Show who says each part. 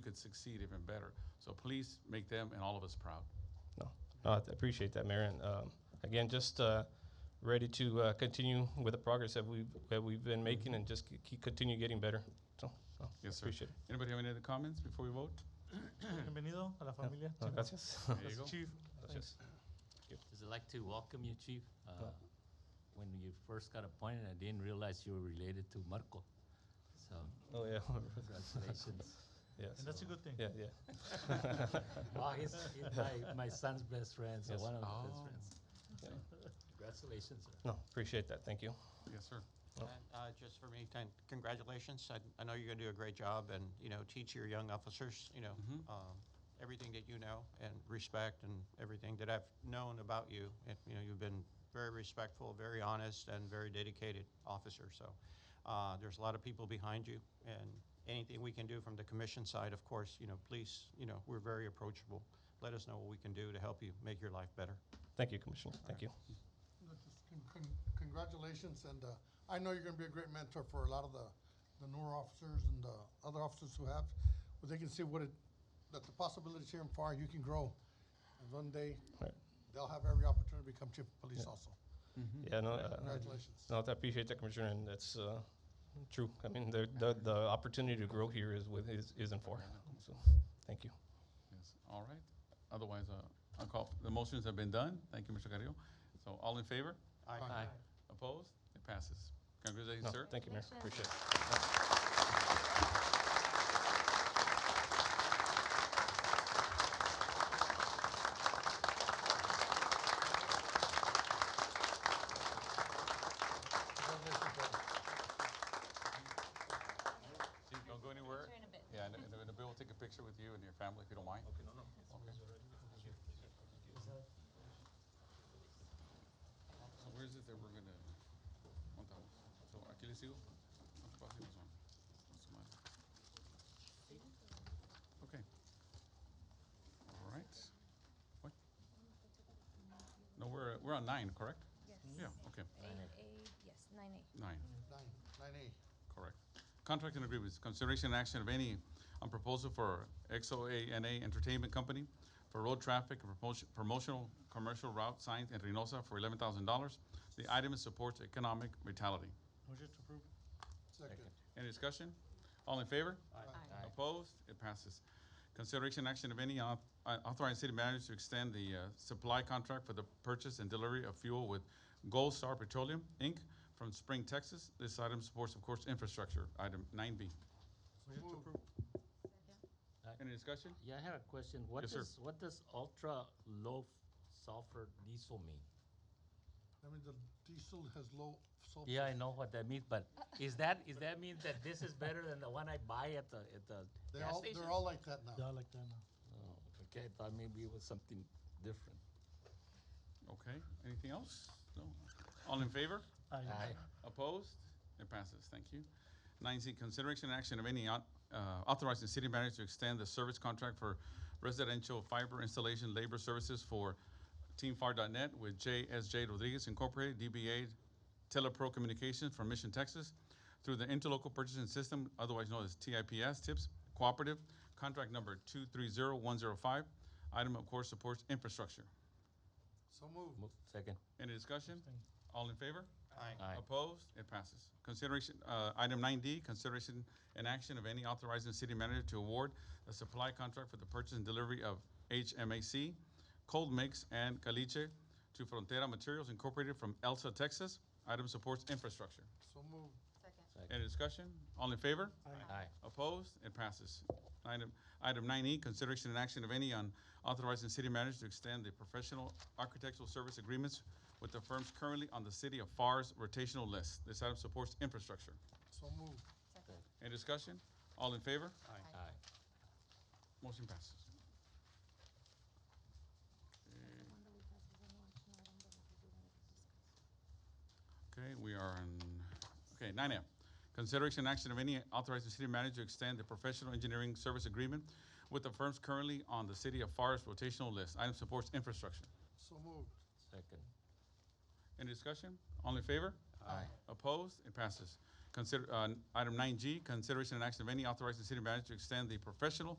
Speaker 1: could succeed even better. So please make them and all of us proud.
Speaker 2: No, Uh, I th- appreciate that, Mayor. And um, again, just uh, ready to uh, continue with the progress that we've, that we've been making and just c- keep continue getting better. So, no,
Speaker 1: Yes, sir.
Speaker 2: appreciate it.
Speaker 1: Anybody have any other comments before we vote?
Speaker 3: Bienvenido Ah, a la familia.
Speaker 2: No,
Speaker 3: Chief.
Speaker 2: gracias.
Speaker 1: There you go.
Speaker 3: Gracias, Chief.
Speaker 2: Gracias.
Speaker 4: Just like to welcome you, Chief. Uh, When you first got appointed, I didn't realize you were related to Marco. So
Speaker 2: Oh, yeah.
Speaker 4: congratulations.
Speaker 2: Yes.
Speaker 3: And that's a good thing.
Speaker 2: Yeah, yeah.
Speaker 4: Oh, he's, he's my, my son's best friend, so
Speaker 2: Yes.
Speaker 4: one of his best
Speaker 1: Oh.
Speaker 4: friends.
Speaker 2: Yeah.
Speaker 4: Congratulations, sir.
Speaker 2: No, appreciate that. Thank you.
Speaker 1: Yes, sir.
Speaker 2: Oh.
Speaker 5: And, uh, Just for me, thank- congratulations. I- I know you're going to do a great job and, you know, teach your young officers, you know,
Speaker 1: Mhm.
Speaker 5: um, everything that you know and respect and everything that I've known about you. And, you know, you've been very respectful, very honest, and very dedicated officer. So uh, there's a lot of people behind you. And anything we can do from the commission side, of course, you know, please, you know, we're very approachable. Let us know what we can do to help you make your life better.
Speaker 2: Thank you, Commissioner. Thank you.
Speaker 6: No, just con- con- Congratulations, and uh, I know you're gonna be a great mentor for a lot of the, the newer officers and the other officers who have, where they can see what it, that the possibilities here in FAR, you can grow. And one day,
Speaker 2: Right.
Speaker 6: they'll have every opportunity to become chief of police
Speaker 2: Yeah.
Speaker 6: also.
Speaker 1: Mm-hmm.
Speaker 2: Yeah, no, uh,
Speaker 6: Congratulations.
Speaker 2: no, I appreciate that, Commissioner, and that's uh, true. I mean, the, the, the opportunity to grow here is with, is, is in far. So, thank you.
Speaker 1: Yes, all right. Otherwise, uh, I'll call, the motions have been done. Thank you, Mr. Carrillo. So all in favor?
Speaker 5: Aye.
Speaker 6: Aye.
Speaker 1: Opposed? It passes. Congratulations,
Speaker 2: No,
Speaker 1: sir.
Speaker 2: Thank you, Mayor. Appreciate it.
Speaker 6: Congratulations, brother.
Speaker 1: Chief, Don't go anywhere. Yeah, and and Nabil will take a picture with you and your family if you don't mind. Okay, no, no. So where is it that we're gonna, on top? So aquí les sigo? Nos pasamos on. What's the matter? Okay. All right. What? No, we're, we're on nine, correct?
Speaker 7: Yes.
Speaker 1: Yeah, okay,
Speaker 7: Nine A, yes, nine A.
Speaker 1: nine.
Speaker 6: Nine, nine A.
Speaker 1: Correct. Contract and agreements, consideration and action of any on proposal for XOANA Entertainment Company for road traffic and promotion, promotional commercial route signs in Reynosa for eleven thousand dollars. The item supports economic vitality.
Speaker 3: Motion to approve.
Speaker 6: Second.
Speaker 1: Any discussion? All in favor?
Speaker 7: Aye.
Speaker 1: Opposed? It passes. Consideration action of any auth- uh, authorizing city manager to extend the uh, supply contract for the purchase and delivery of fuel with Gold Star Petroleum, Inc. from Spring, Texas. This item supports, of course, infrastructure. Item nine B.
Speaker 3: Motion to
Speaker 6: Move.
Speaker 3: approve.
Speaker 1: Any discussion?
Speaker 4: Yeah, I had a question. What
Speaker 1: Yes, sir.
Speaker 4: does, what does ultra low sulfur diesel mean?
Speaker 6: That means the diesel has low sulfur.
Speaker 4: Yeah, I know what that means, but is that, is that mean that this is better than the one I buy at the, at the
Speaker 6: They're
Speaker 4: gas
Speaker 6: all,
Speaker 4: station?
Speaker 6: they're all like that now.
Speaker 3: Yeah, I like that now.
Speaker 4: Oh, Okay, I thought maybe it was something different.
Speaker 1: Okay, anything else? No. All in favor?
Speaker 3: Aye.
Speaker 1: Opposed? It passes, thank you. Nine C, consideration and action of any au- uh, authorizing city manager to extend the service contract for residential fiber installation labor services for teamfAR.net with JSJ Rodriguez Incorporated, DBA Telepro Communications from Mission, Texas, through the Interlocal Purchasing System, otherwise known as TIPS, TIPS Cooperative, contract number 230105. Item, of course, supports infrastructure.
Speaker 6: So move.
Speaker 4: Mo- Second.
Speaker 1: Any discussion?
Speaker 3: Abstain.
Speaker 1: All in favor?
Speaker 5: Aye.
Speaker 4: Aye.
Speaker 1: Opposed? It passes. Consideration, uh, item nine D, consideration and action of any authorizing city manager to award a supply contract for the purchase and delivery of HMAC, cold mix, and caliche to Frontera Materials Incorporated from Elsa, Texas. Item supports infrastructure.
Speaker 6: So move.
Speaker 7: Second.
Speaker 1: Any discussion? All in favor?
Speaker 4: Aye.
Speaker 1: Opposed? It passes. Item, item nine E, consideration and action of any on authorizing city manager to extend the professional architectural service agreements with the firms currently on the city of FAR's rotational list. This item supports infrastructure.
Speaker 6: So move.
Speaker 7: Second.
Speaker 1: Any discussion? All in favor?
Speaker 4: Aye.
Speaker 1: Motion passes. Okay, we are in, okay, nine F. Consideration and action of any authorizing city manager to extend the professional engineering service agreement with the firms currently on the city of FAR's rotational list. Item supports infrastructure.
Speaker 6: So move.
Speaker 4: Second.
Speaker 1: Any discussion? All in favor?
Speaker 4: Aye.
Speaker 1: Opposed? It passes. Consider, uh, item nine G, consideration and action of any authorizing city manager to extend the professional